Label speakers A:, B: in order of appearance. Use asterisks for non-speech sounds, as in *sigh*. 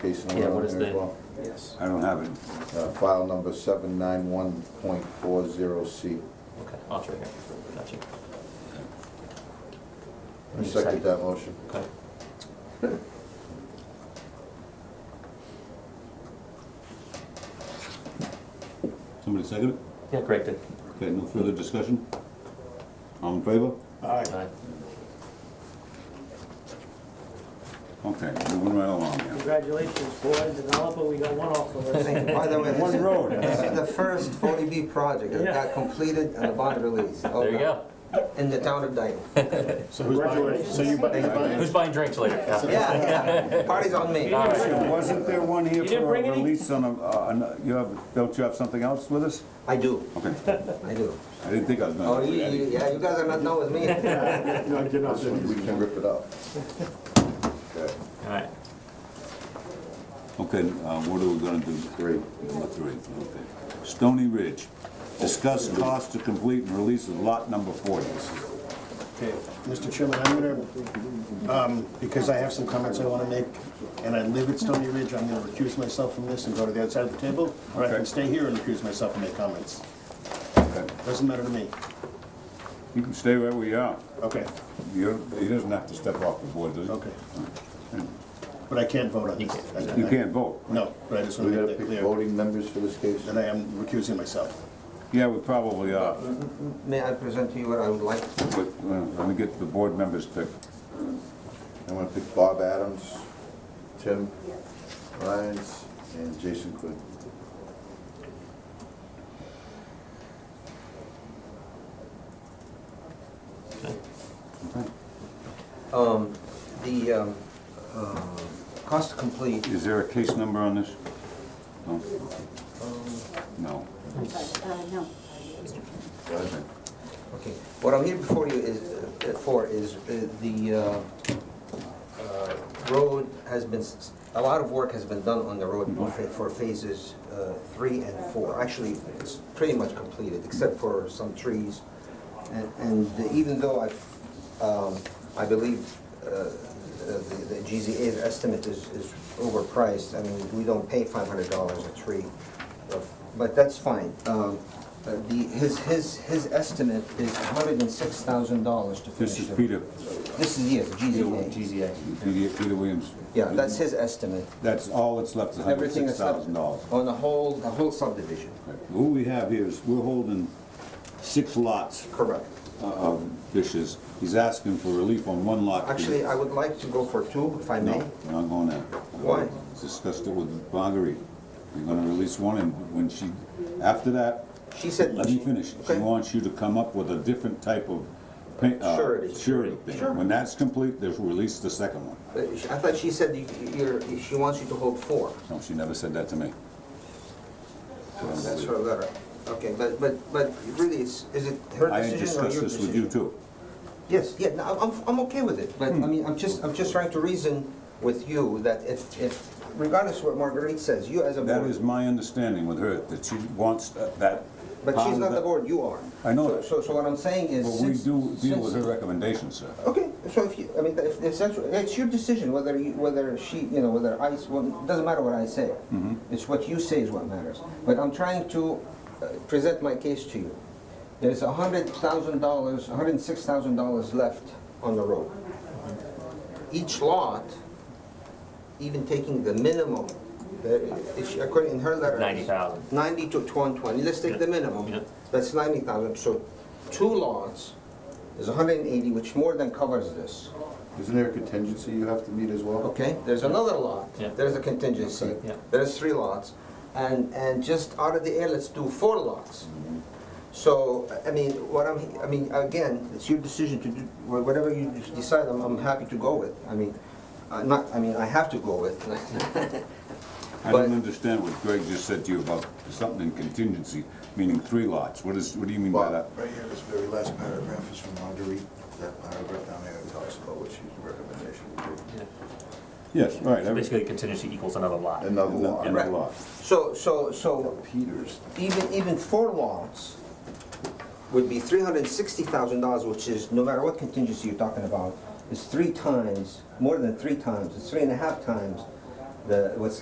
A: case number
B: Yeah, what
A: on
B: is
A: there as
B: the-
A: well?
C: Yes.
D: I don't have it.
A: Uh, File number seven nine one point four zero C.
B: Okay, oh, it's right here, gotcha.
A: I second that motion.
B: Okay,
D: Somebody second it?
B: yeah, Greg did.
D: Okay, no further discussion? All in favor?
C: Aye.
B: Aye.
D: Okay, moving right along here.
E: Congratulations, board developer, we got one off the list.
F: By the way, this
D: One
F: is,
D: road.
F: *laughs* this is the first 40B project that got completed and a bond release.
B: There you go.
F: In the town of Dayton.
C: So who's buying, so you buy- you buying?
B: Who's buying drinks later?
F: Yeah, yeah, party's on me.
B: All right.
D: Wasn't there one here
E: You didn't
D: for
E: bring
D: a
E: any?
D: release on a, uh, on- you have, don't you have something else with us?
F: I do,
D: Okay,
F: I do.
D: I didn't think I was
F: Oh,
D: gonna.
F: you, you- yeah, you guys are not done with me.
C: No, you're not.
A: We can rip it up.
G: *laughs*
A: Okay,
B: All right,
D: Okay, uh, what are we gonna do?
A: Three.
D: Number three, okay. Stony Ridge, discuss cost to complete and release of lot number forty.
C: Okay, Mr. Chairman, I'm gonna, um, because I have some comments I wanna make, and I live at Stony Ridge, I'm gonna recuse myself from this and go to the outside of the table, or I
D: Okay.
C: can stay here and recuse myself and make comments.
D: Okay.
C: Doesn't matter to me.
D: You can stay where we are.
C: Okay,
D: You're, he doesn't have to step off the board, does he?
C: okay. But I can't vote on this.
D: You can't vote.
C: No, but I just
A: We
C: wanna
A: gotta
C: make that
A: pick
C: clear,
A: voting members for this case?
C: that I am recusing myself.
D: Yeah, we probably are,
F: May I present to you what I would like?
D: but uh, when we get to the board members pick.
A: I'm gonna pick Bob Adams, Tim Lyons, and Jason Quinn.
F: Um, The um, uh, cost to complete,
D: Is there a case number on this? No? No.
H: Sorry, uh, no.
F: okay. What I'm here before you is, uh, for is uh, the uh, uh, road has been, s- a lot of work has been done on the road for- for phases uh, three and four. Actually, it's pretty much completed, except for some trees. And- And even though I, um, I believe uh, the the GZA's estimate is is overpriced, I mean, we don't pay $500 a tree, uh, but that's fine. Um, uh, The, his, his, his estimate is $106,000 to finish.
D: This is
F: the-
D: Peter,
F: This is, yes, GZA. GZA.
D: Peter Peter Williams.
F: Yeah, that's his estimate.
D: That's all that's left, is hundred
F: Everything
D: six
F: that's left
D: thousand dollars.
F: on the whole, the whole subdivision.
D: What we have here is, we're holding six lots
F: Correct.
D: of dishes. He's asking for relief on one lot.
F: Actually, I would like to go for two, if I may.
D: No, we're not going there.
F: Why?
D: Discussed it with Marguerite. We're gonna release one, and when she, after that,
F: She said.
D: Let me finish. She
F: Okay.
D: wants you to come up with a different type of pa- uh,
F: Surety.
D: surety
F: Sure.
D: thing. When that's complete, they'll release the second one.
F: Uh, I thought she said you- you're, she wants you to hold four.
D: No, she never said that to me.
F: That's her letter. Okay, but, but, but really, it's, is it her
D: I had
F: decision or
D: discussed
F: your
D: this with you
F: decision?
D: too.
F: Yes, yeah, no, I'm, I'm- I'm okay with it, but,
D: Hmm.
F: I mean, I'm just, I'm just trying to reason with you that if, if, regardless of what Marguerite says, you as a
D: That
F: board.
D: is my understanding with her, that she wants uh, that.
F: But she's
D: pound
F: not the
D: that-
F: board, you are.
D: I know
F: So-
D: that.
F: So, so what I'm saying is
D: But we
F: since.
D: do deal with her
F: since-
D: recommendations, sir.
F: Okay, so if you, I mean, if, if that's, it's your decision whether you, whether she, you know, whether I, s- well, it doesn't matter what I say. It's what you say is what matters. But I'm trying to uh, present my case to you. There's a hundred thousand dollars, a hundred and six thousand dollars left on the road. Each lot, even taking the minimum, the- it's- according in her letter.
B: 90,000.
F: 90 to 120, let's take the
B: Yeah.
F: minimum. That's 90,000, so two lots is 180, which more than covers this,
A: Isn't there a contingency you have to meet as well?
F: okay? There's another lot,
B: Yeah.
F: there's a contingency,
B: Yeah.
F: there's three lots. And, and just out of the air, let's do four lots.
B: Mm-hmm.
F: So, I I mean, what I'm, I mean, again, it's your decision to do, wha- whatever you just decide, I'm, I'm happy to go with. I mean, uh, not, I mean, I have to go with. *laughs*
D: I
F: But-
D: don't understand what Greg just said to you about something in contingency, meaning three lots. What is, what do you mean by that?
G: Right here, this very last paragraph is from Marguerite, that paragraph down there talks about what she's recommendation would be.
B: Yeah.
D: Yes, right.
B: So
D: every-
B: Basically, contingency equals another lot.
A: Another
D: Another
A: one.
D: another lot.
F: So, so, so
A: Peters.
F: even, even four lots would be three hundred and sixty thousand dollars, which is, no matter what contingency you're talking about, is three times, more than three times, it's three and a half times the, what's